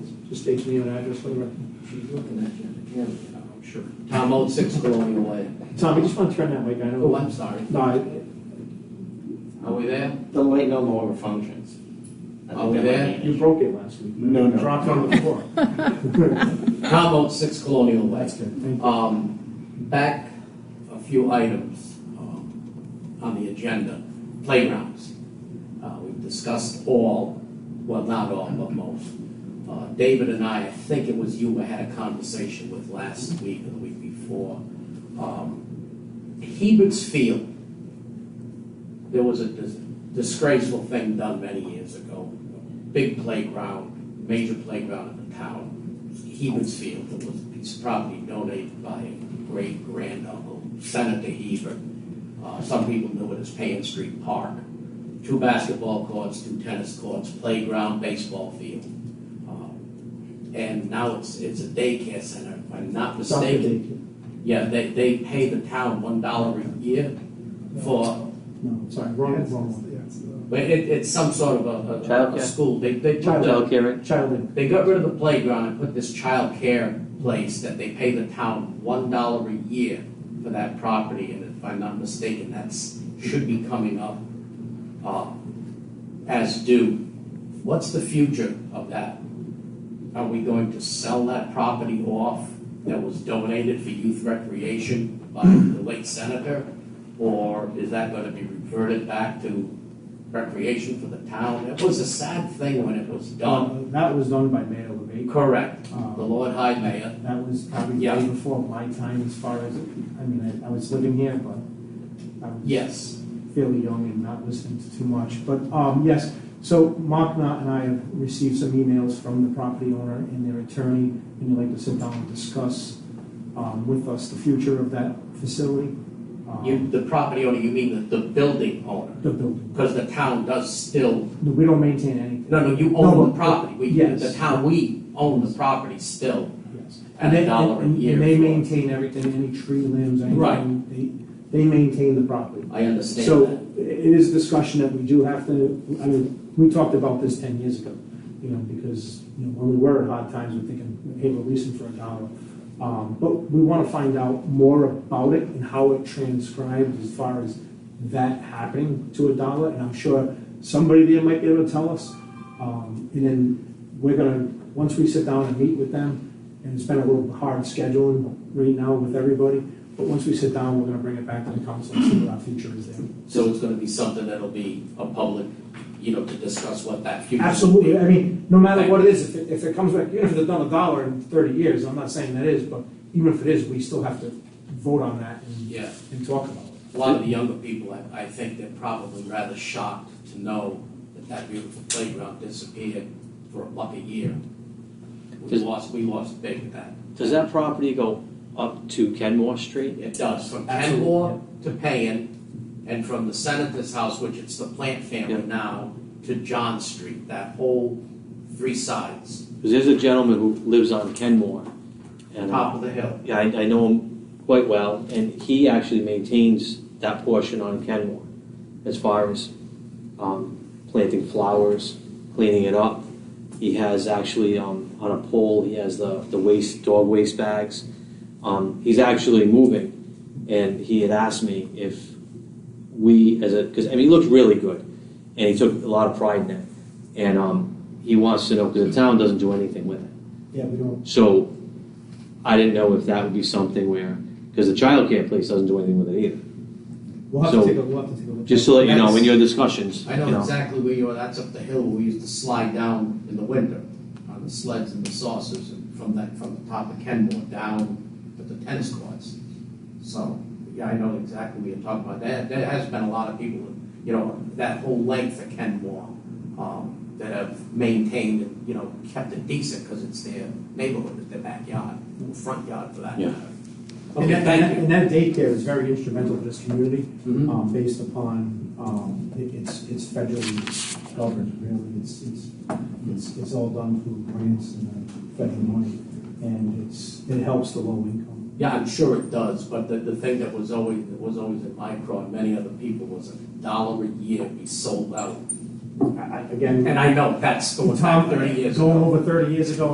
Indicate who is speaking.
Speaker 1: state your name and address for the record.
Speaker 2: She's looking at you, yeah, I'm sure. Tom Old, Six Colonial Way.
Speaker 1: Tom, you just want to turn that mic, I
Speaker 2: Oh,
Speaker 1: know.
Speaker 2: I'm sorry.
Speaker 1: No, I-
Speaker 2: Are we there?
Speaker 3: The light no longer functions. I
Speaker 2: Oh,
Speaker 3: think that
Speaker 2: yeah?
Speaker 3: might be
Speaker 1: you
Speaker 3: it.
Speaker 1: broke it last week.
Speaker 3: No, no.
Speaker 1: Dropped on the floor.
Speaker 2: Tom Old, Six Colonial Way.
Speaker 1: That's good, thank you.
Speaker 2: Um, back a few items, um, on the agenda, playgrounds. Uh, we've discussed all, well, not all, but most. Uh, David and I, I think it was you, I had a conversation with last week or the week before. Um, Hebert's Field, there was a dis- disgraceful thing done many years ago. Big playground, major playground in the town, Hebert's Field, that was a piece of property donated by a great granduncle, Senator Hebert. Uh, some people knew it as Payne Street Park. Two basketball courts, two tennis courts, playground, baseball field. Uh, And now it's, it's a daycare center, if I'm not
Speaker 1: Stop the
Speaker 2: mistaken.
Speaker 1: date.
Speaker 2: Yeah, they, they pay the town one dollar a year for,
Speaker 1: No, sorry, wrong, wrong one.
Speaker 2: but it, it's some sort of a- a, a,
Speaker 3: Childcare.
Speaker 2: school. They, they took the,
Speaker 3: Childcare, right?
Speaker 1: Childhood.
Speaker 2: they got rid of the playground and put this child care place that they pay the town one dollar a year for that property, and if I'm not mistaken, that's, should be coming up, uh, as due. What's the future of that? Are we going to sell that property off that was donated for youth recreation by the late senator? Or is that gonna be reverted back to recreation for the town? It was a sad thing when it was done.
Speaker 1: Um,
Speaker 4: That was done by Mayor LeBake.
Speaker 2: Correct.
Speaker 4: Um,
Speaker 2: The Lord High Mayor.
Speaker 4: That was probably
Speaker 2: Yeah.
Speaker 4: way before my time as far as, I mean, I- I was living here, but I was
Speaker 2: Yes.
Speaker 4: fairly young and not listening to too much. But um, yes, so Mark Knott and I have received some emails from the property owner and their attorney, and they'd like to sit down and discuss um, with us the future of that facility. um,
Speaker 2: You, the property owner, you mean the, the building owner?
Speaker 4: The building.
Speaker 2: Because the town does still,
Speaker 4: We don't maintain anything,
Speaker 2: no, no, you
Speaker 4: No,
Speaker 2: own
Speaker 4: but-
Speaker 2: the property. We,
Speaker 4: yes.
Speaker 2: the town, we own the property still
Speaker 4: yes.
Speaker 2: at a dollar a
Speaker 4: And-
Speaker 2: year.
Speaker 4: And they
Speaker 2: for-
Speaker 4: maintain everything, any tree limbs, anything. They, they maintain the property.
Speaker 2: I understand that.
Speaker 4: So it is a discussion that we do have to, I mean, we talked about this ten years ago, you know, because, you know, when we were at hard times, we're thinking, hey, we'll lease them for a dollar. Um, but we wanna find out more about it and how it transcribed as far as that happening to a dollar, and I'm sure somebody there might be able to tell us. Um, and then we're gonna, once we sit down and meet with them, and it's been a little hard scheduling right now with everybody, but once we sit down, we're gonna bring it back to the council and see what our future is there.
Speaker 2: So it's gonna be something that'll be a public, you know, to discuss what that future. will be.
Speaker 4: Absolutely, I mean, no matter what it is, if it, if it comes back, even if it's done a dollar in thirty years, I'm not saying that is, but even if it is, we still have to vote on that and,
Speaker 2: Yeah.
Speaker 4: and talk about it.
Speaker 2: A lot of the younger people, I, I think they're probably rather shocked to know that that beautiful playground disappeared for a buck a year. We
Speaker 3: Does-
Speaker 2: lost, we lost big with that.
Speaker 3: Does that property go up to Kenmore Street?
Speaker 2: It does, from
Speaker 4: Absolutely,
Speaker 2: Kenmore to Payan, and from the Senator's house, which it's the Plant family
Speaker 3: Yeah.
Speaker 2: now, to John Street, that whole three sides,
Speaker 3: Because there's a gentleman who lives on Kenmore. And uh,
Speaker 2: top of the hill.
Speaker 3: yeah, I, I know him quite well, and he actually maintains that portion on Kenmore as far as um, planting flowers, cleaning it up. He has actually um, on a pole, he has the, the waste, dog waste bags. Um, he's actually moving, and he had asked me if we, as a, because, I mean, he looked really good, and he took a lot of pride in it. And um, he wants to know, because the town doesn't do anything with it.
Speaker 4: Yeah, we don't,
Speaker 3: So I didn't know if that would be something where, because the childcare place doesn't do anything with it either.
Speaker 4: we'll have
Speaker 3: So,
Speaker 4: to take a, we'll have to take a look.
Speaker 3: Just to let you know, in
Speaker 2: That's-
Speaker 3: your discussions,
Speaker 2: I
Speaker 3: you know.
Speaker 2: know exactly where you are, that's up the hill, we used to slide down in the winter on the sleds and the saucers, and from that, from the top of Kenmore down to the tennis courts. So, yeah, I know exactly what you're talking about, there, there has been a lot of people, you know, that whole length of Kenmore, um, that have maintained, and you know, kept it decent, because it's their neighborhood, it's their backyard, or front yard for that
Speaker 3: Yeah.
Speaker 2: matter.
Speaker 4: And
Speaker 2: Okay,
Speaker 4: that-
Speaker 2: thank you.
Speaker 4: And that daycare is very instrumental to this community,
Speaker 2: Mhm.
Speaker 4: um, based upon, um, it- it's, it's federally governed, really. It's, it's, it's, it's all done through grants and uh, federal money, and it's, it helps the low income.
Speaker 2: Yeah, I'm sure it does, but the, the thing that was always, that was always in my craw and many other people was a dollar a year be sold out.
Speaker 4: I- I- Again,
Speaker 2: And I know that's going
Speaker 4: Tom,
Speaker 2: back thirty years ago.
Speaker 4: going over thirty years ago,